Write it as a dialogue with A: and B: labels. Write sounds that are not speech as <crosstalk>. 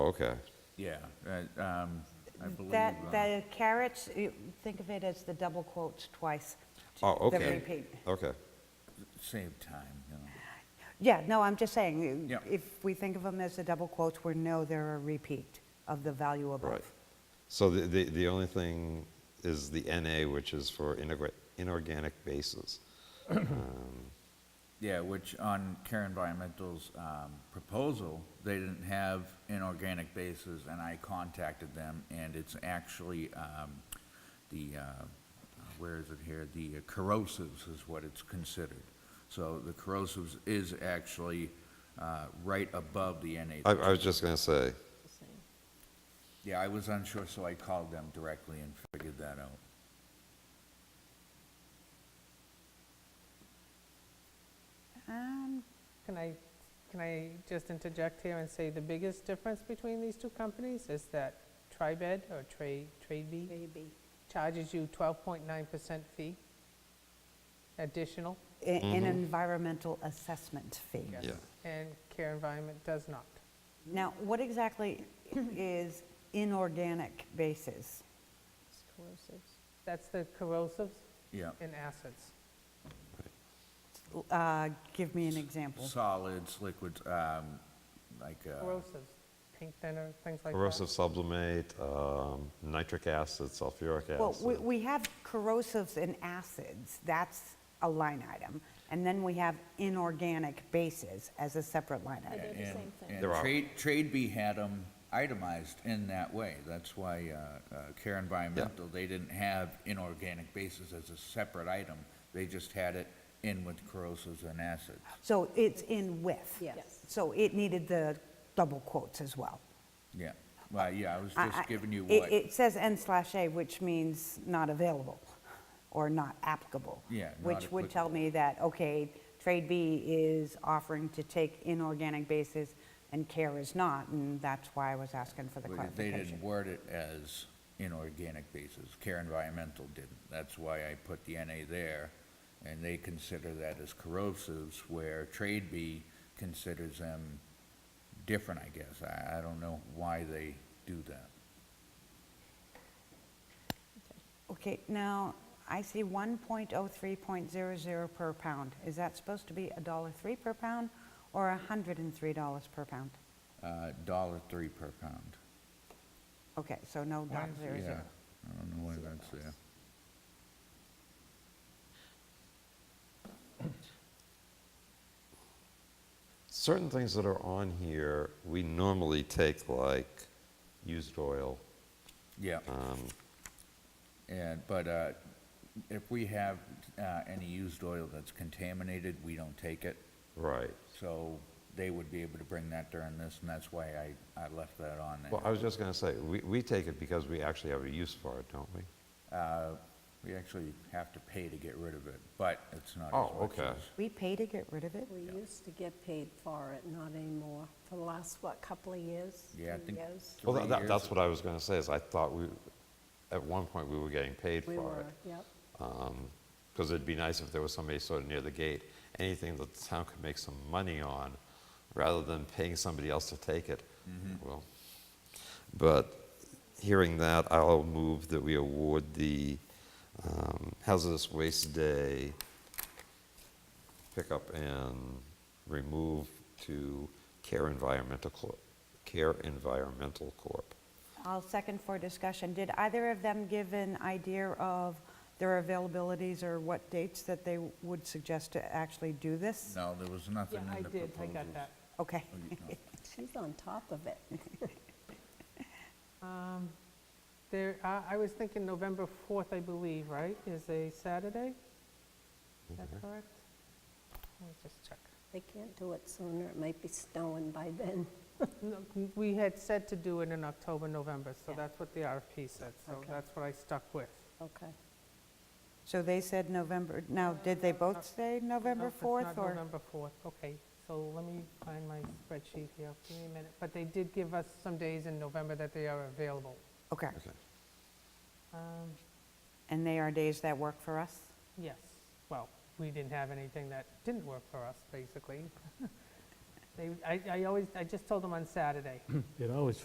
A: Okay,
B: Yeah, right, um, I believe.
C: That,
B: uh,
C: the carrots, you- think of it as the double quotes twice. to-
A: oh,
C: the
A: okay,
C: repeat.
A: okay,
B: Save time, you know.
C: Yeah, no, I'm just saying,
B: Yeah.
C: if we think of them as the double quotes, we know they're a repeat of the value
A: right.
C: above.
A: So the, the, the only thing is the NA, which is for inorga- inorganic bases.
C: <clears throat>
A: Um,
B: Yeah, which on Care Environmental's um, proposal, they didn't have inorganic bases, and I contacted them, and it's actually um, the, uh, where is it here? The uh, corrosives is what it's considered. So the corrosives is actually uh, right above the NA.
A: I, I was just gonna say,
B: Yeah, I was unsure, so I called them directly and figured that out.
C: Um,
D: Can I, can I just interject here and say the biggest difference between these two companies is that Tribed or Tra- Tradebee
C: maybe.
D: charges you 12.9% fee additional,
C: A-
A: Mm-hmm.
C: An environmental assessment fee.
B: Mm,
D: Yes.
A: yeah,
D: and Care Environment does not.
C: Now, what
A: <clears throat>
C: exactly is inorganic basis?
D: That's the corrosives
B: Yeah,
D: and acids.
C: Uh, Give me an example.
B: solids, liquids, um, like, uh,
D: Corrosives, paint thinner, things like that.
A: corrosive sublimate, um, nitric acid, sulfuric
C: Well, we-
A: acid.
C: we have corrosives and acids, that's a line item. And then we have inorganic bases as a separate line
E: They
C: item.
E: do the same thing.
B: and
A: There are.
B: trade, Tradebee had them itemized in that way. That's why uh, uh, Care Environmental, they didn't have inorganic bases as a separate item. They just had it in with corrosives and acids.
C: So it's in with.
E: Yes.
C: So it needed the double quotes as well.
B: Yeah, well, yeah, I was
C: I- I-
B: just giving you
C: it-
B: what,
C: It says N slash A, which means not available or not applicable.
B: Yeah, not
C: Which would tell me that, okay, trade B is offering to take inorganic bases and care is not, and that's why I was asking for the
B: but they
C: clarification.
B: didn't word it as inorganic bases. Care Environmental didn't. That's why I put the NA there, and they consider that as corrosives, where Tradebee considers them different, I guess. I, I don't know why they do that.
C: Okay, now, I see 1.03.00 per pound. Is that supposed to be a dollar three per pound or $103 per pound?
B: Uh, Dollar three per pound.
C: Okay, so no
B: Why
C: dot
B: is-
C: zero zero.
B: yeah, I don't know why that's there.
A: Certain things that are on here, we normally take like used oil.
B: Yeah. And, but uh, if we have uh, any used oil that's contaminated, we don't take it.
A: Right.
B: So they would be able to bring that during this, and that's why I, I left that on
A: Well, I
B: there.
A: was just gonna say, we, we take it because we actually have a use for it, don't we?
B: Uh, We actually have to pay to get rid of it, but it's not as much
A: Oh, okay.
B: as-
C: We pay to get rid of it?
E: We used to get paid for it, not anymore, for the last, what, couple of years?
B: Yeah, I
E: Three
B: think
E: years?
B: three
A: Well, tha-
B: years
A: that, that's what I was gonna say, is I thought we, at one point, we were getting paid
E: We
A: for
E: were,
A: it.
E: yep.
A: Because it'd be nice if there was somebody sort of near the gate, anything that the town could make some money on, rather than paying somebody else to take it.
E: Mm-hmm.
A: Well, but hearing that, I'll move that we award the um, hazardous waste day pickup and remove to Care Environmental Corp. Care Environmental Corp.
C: I'll second for discussion. Did either of them give an idea of their availabilities or what dates that they would suggest to actually do this?
B: No, there was
D: Yeah,
B: nothing
D: I
B: in the
D: did,
B: proposals. Oh,
D: I got that.
C: Okay.
E: She's on top of it.
D: There, I- I was thinking November 4th, I believe, right, is a Saturday? Is that correct? Let me just check.
E: They can't do it sooner, it might be snowing by then.
D: No, We had said to do it in October, November, so
E: Yeah.
D: that's what the RFP said, so
E: Okay.
D: that's what I stuck with.
E: Okay.
C: So they said November, now, did they both say
D: No,
C: November
D: it's
C: 4th
D: not
C: or?
D: November 4th, okay, so let me find my spreadsheet here, give me a minute. But they did give us some days in November that they are available.
C: Okay,
A: Okay.
D: Um,
C: and they are days that work for us?
D: Yes, well, we didn't have anything that didn't work for <laughs> us, basically. They, I I always, I just told them on Saturday.
F: It always